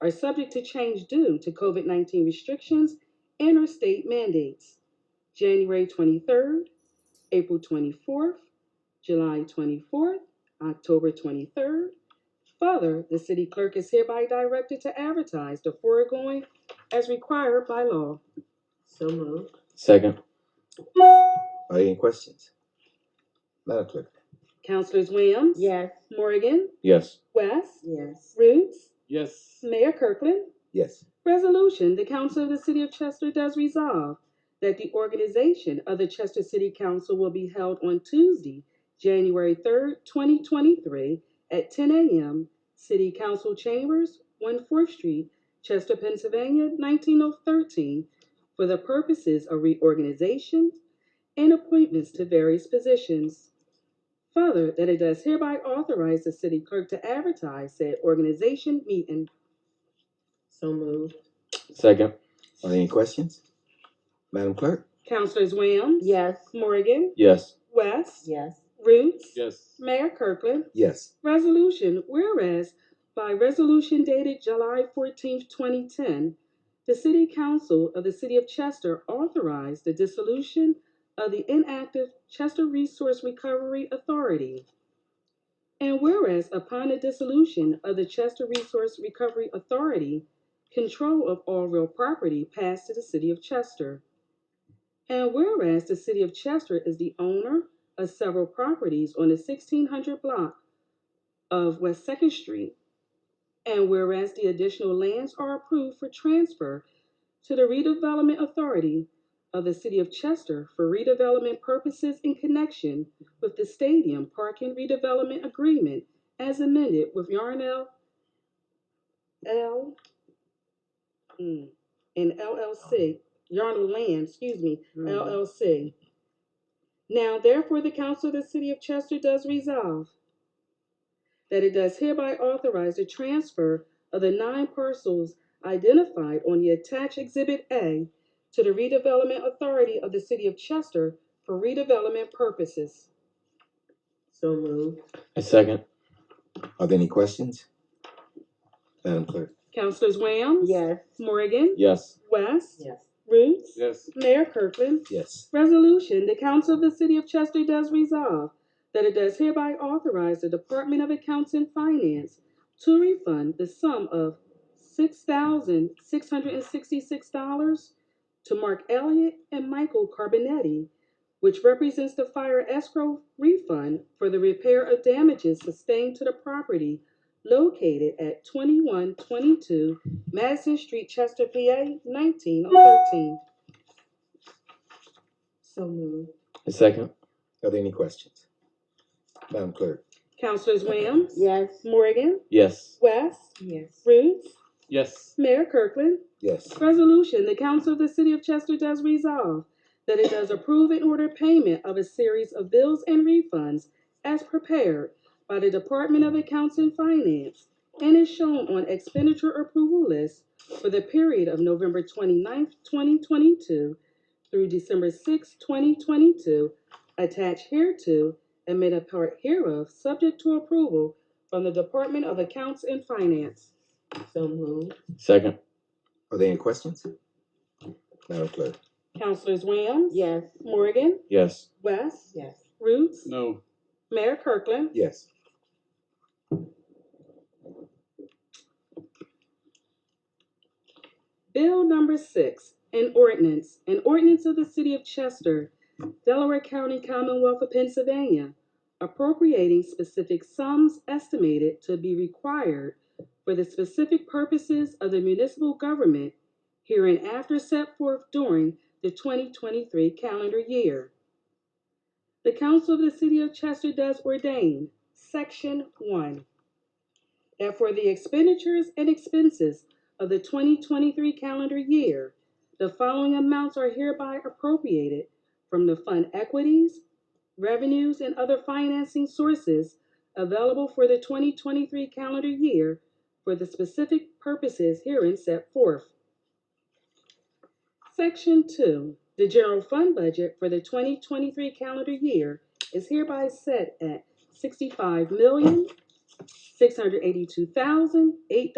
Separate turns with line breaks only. are subject to change due to COVID 19 restrictions and or state mandates. January 23rd, April 24th, July 24th, October 23rd. Further, the city clerk is hereby directed to advertise the foregoing as required by law.
So moved.
Second.
Are there any questions? Madam Clerk?
Councilors Williams?
Yes.
Morgan?
Yes.
West?
Yes.
Roots?
Yes.
Mayor Kirkland?
Yes.
Resolution, the Council of the City of Chester does resolve that the organization of the Chester City Council will be held on Tuesday, January third, twenty twenty-three, at ten AM, City Council Chambers, One Fourth Street, Chester, Pennsylvania, nineteen oh thirteen, for the purposes of reorganization and appointments to various positions. Further, that it does hereby authorize the city clerk to advertise said organization meeting.
So moved.
Second.
Are there any questions? Madam Clerk?
Councilors Williams?
Yes.
Morgan,
Yes.
West,
Yes.
Roots,
Yes.
Mayor Kirkland.
Yes.
Resolution, whereas by resolution dated July fourteenth, twenty ten, the City Council of the City of Chester authorized the dissolution of the inactive Chester Resource Recovery Authority. And whereas upon the dissolution of the Chester Resource Recovery Authority, control of all real property passed to the City of Chester. And whereas the City of Chester is the owner of several properties on the sixteen hundred block of West Second Street. And whereas the additional lands are approved for transfer to the redevelopment authority of the city of Chester for redevelopment purposes in connection with the stadium parking redevelopment agreement as amended with Yarnell L mm, and LLC, Yarnell Land, excuse me,
Mm-hmm. Mm.
LLC. Now therefore, the council of the city of Chester does resolve that it does hereby authorize the transfer of the nine parcels identified on the attached Exhibit A to the redevelopment authority of the city of Chester for redevelopment purposes.
So moved.
I second.
Are there any questions? Madam Clerk?
Councilors Williams?
Yes.
Morgan?
Yes.
West?
Yes.
Roots?
Yes.
Mayor Kirkland?
Yes.
Resolution, the Council of the City of Chester does resolve that it does hereby authorize the Department of Accounts and Finance to refund the sum of six thousand six hundred and sixty-six dollars to Mark Elliott and Michael Carbonetti, which represents the fire escrow refund for the repair of damages sustained to the property located at twenty-one twenty-two Madison Street, Chester, PA, nineteen oh thirteen.
So moved.
I second.
Are there any questions? Madam Clerk?
Councilors Williams?
Yes.
Morgan?
Yes.
West?
Yes.
Roots?
Yes.
Mayor Kirkland?
Yes.
Resolution, the Council of the City of Chester does resolve that it does approve and order payment of a series of bills and refunds as prepared by the Department of Accounts and Finance and is shown on expenditure approval list for the period of November 29th, twenty-two through December sixth, twenty twenty-two, attached hereto and made a part hereof, subject to approval from the Department of Accounts and Finance.
So moved.
Second.
Are there any questions? Madam Clerk?
Councilors Williams?
Yes.
Morgan?
Yes.
West?
Yes.
Roots?
No.
Mayor Kirkland?
Yes.
Bill number six, an ordinance, an ordinance of the city of Chester, Delaware County, Commonwealth of Pennsylvania, appropriating specific sums estimated to be required for the specific purposes of the municipal government hereinafter set forth during the twenty twenty-three calendar year. The council of the city of Chester does ordain, section one, that for the expenditures and expenses of the 2023 calendar year, the following amounts are hereby appropriated from the fund equities, revenues, and other financing sources available for the 2023 calendar year for the specific purposes herein set forth. Section 2. The general fund budget for the 2023 calendar year is hereby set at 65 million six hundred eighty-two thousand eight.